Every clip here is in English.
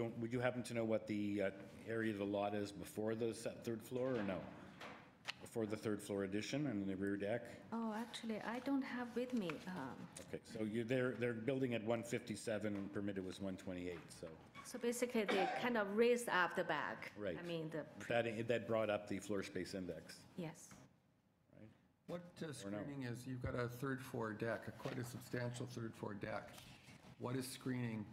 Don't- Would you happen to know what the uh, area of the lot is before the se- third floor, or no? Before the third floor addition and the rear deck? Oh, actually, I don't have with me. um, Okay, so you're, they're, they're building at 157 and permitted was 128, so So basically, they kind of raised up the back. Right. I mean, the, that, that brought up the floor space index. yes. What uh, screening is, you've got a third floor deck, a quite a substantial third floor deck. What is screening?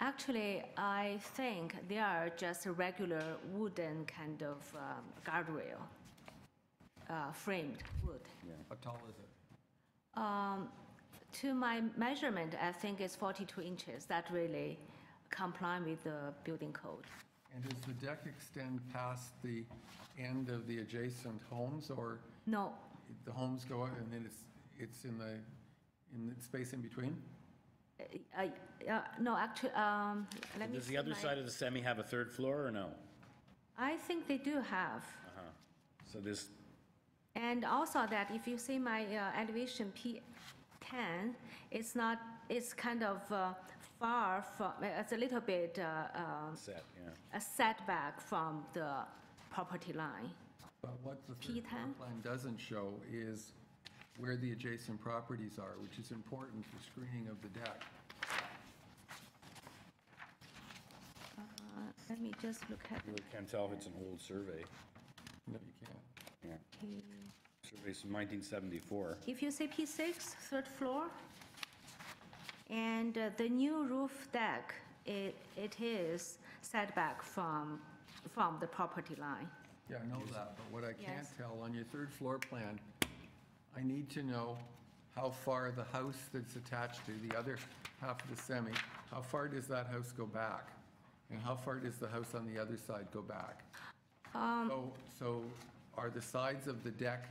Actually, I think they are just a regular wooden kind of um, guardrail, uh, framed wood. Um, How tall is it? To my measurement, I think it's 42 inches. That really comply with the building code. And does the deck extend past the end of the adjacent homes, or No, the homes go out and then it's, it's in the, in the space in between? I, uh, no, actually, um, let me. Does the see other my- side of the semi have a third floor, or no? I think they do have. So this, And also that if you see my uh, elevation P10, it's not, it's kind of uh, far from, it's a little bit uh, uh, set, yeah. a setback from the property line. But what the third floor P10? plan doesn't show is where the adjacent properties are, which is important for screening of the deck. Uh, Let me just look at You can't tell if it's an old survey. No, you can't. Yeah, P. survey's from 1974. If you say P6, third floor, and uh, the new roof deck, it, it is setback from, from the property line. Yeah, I know that, but what I can't Yes. tell, on your third floor plan, I need to know how far the house that's attached to the other half of the semi, how far does that house go back? And how far does the house on the other side go back? Um. So, so are the sides of the deck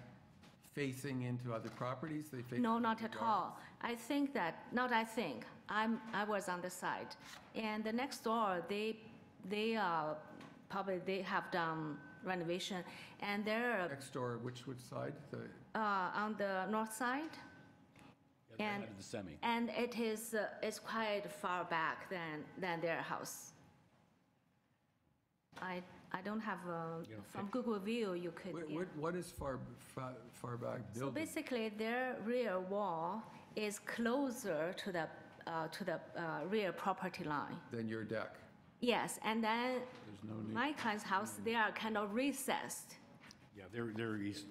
facing into other properties? They face No, into not the at yard? all. I think that, not I think, I'm, I was on the side. And the next door, they, they, uh, probably they have done renovation, and they're, Next door, which, which side? The, uh, on the north side, The other And- side of the semi. and it is, uh, it's quite far back than, than their house. I, I don't have, um, from Google View, you could, what- yeah. what, what is far, far, far back So building? basically, their rear wall is closer to the, uh, to the, uh, rear property line. Than your deck? Yes, and then my client's house, they are kind of recessed. Yeah, they're, they're east.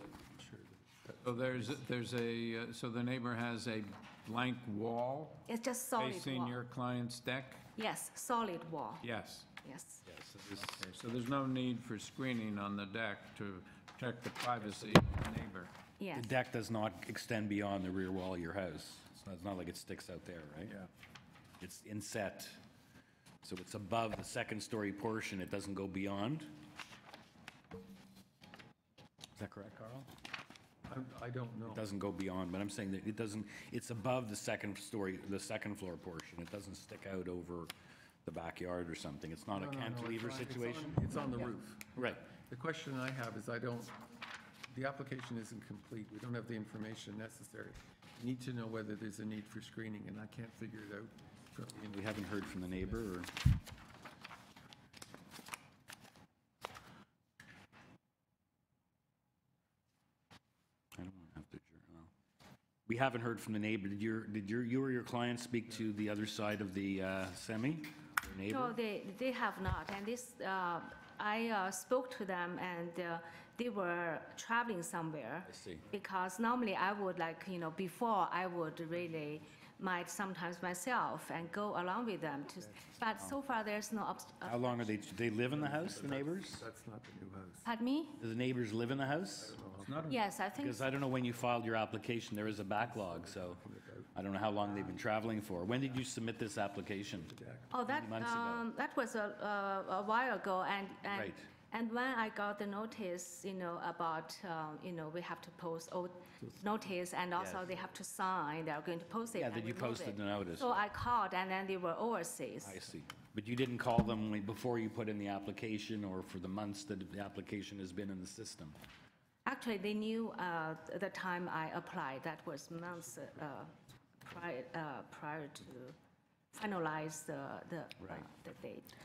So there's, there's a, uh, so the neighbor has a blank wall It's just solid facing wall. your client's deck? Yes, solid wall, Yes. yes. Yeah, so this- Okay, So there's no need for screening on the deck to protect the privacy of the neighbor. Yes, The deck does not extend beyond the rear wall of your house. It's not- It's not like it sticks out there, right? It's inset, so it's above the second-story portion, it doesn't go beyond. Is that correct, Carl? I, I don't know. It doesn't go beyond, but I'm saying that it doesn't, it's above the second story, the second floor portion. It doesn't stick out over the backyard or something. It's not a No, no, no, it's cantilever on- it's on- situation. It's on the roof. Right. The question I have is I don't, the application isn't complete. We don't have the information necessary. We Need to know whether there's a need for screening, and I can't figure it out. from the And in- We haven't heard from the neighbor or? I don't want to have to, adjourn, no. We haven't heard from the neighbor. Did your, did your, you or your client speak to the other side of the uh, semi? Your no, Neighbor? they, they have not, and this, uh, I uh, spoke to them, and uh, they were traveling somewhere. I see. Because normally I would like, you know, before, I would really, might sometimes myself and go along with them to, but so far, there's no, obst- uh, How long are they, do they live in the house, the neighbors? That's not the new house. pardon me? Do the neighbors live in the house? Yes, I think Because I don't know when you filed your application, there is a backlog, so I don't know how long they've been traveling for. When did you submit this application? Oh, that, months ago. um, that was a, uh, a- a while ago, and, and, Right. and when I got the notice, you know, about, um, you know, we have to post old notice, and also Yes. they have to sign, they are going to post it Yeah, and that you remove posted it. the notice. So I called, and then they were overseas. I see. But you didn't call them when- before you put in the application or for the months that the application has been in the system? Actually, they knew, uh, the time I applied, that was months, uh, prior, uh, prior to finalize the, the, uh, Right. the date.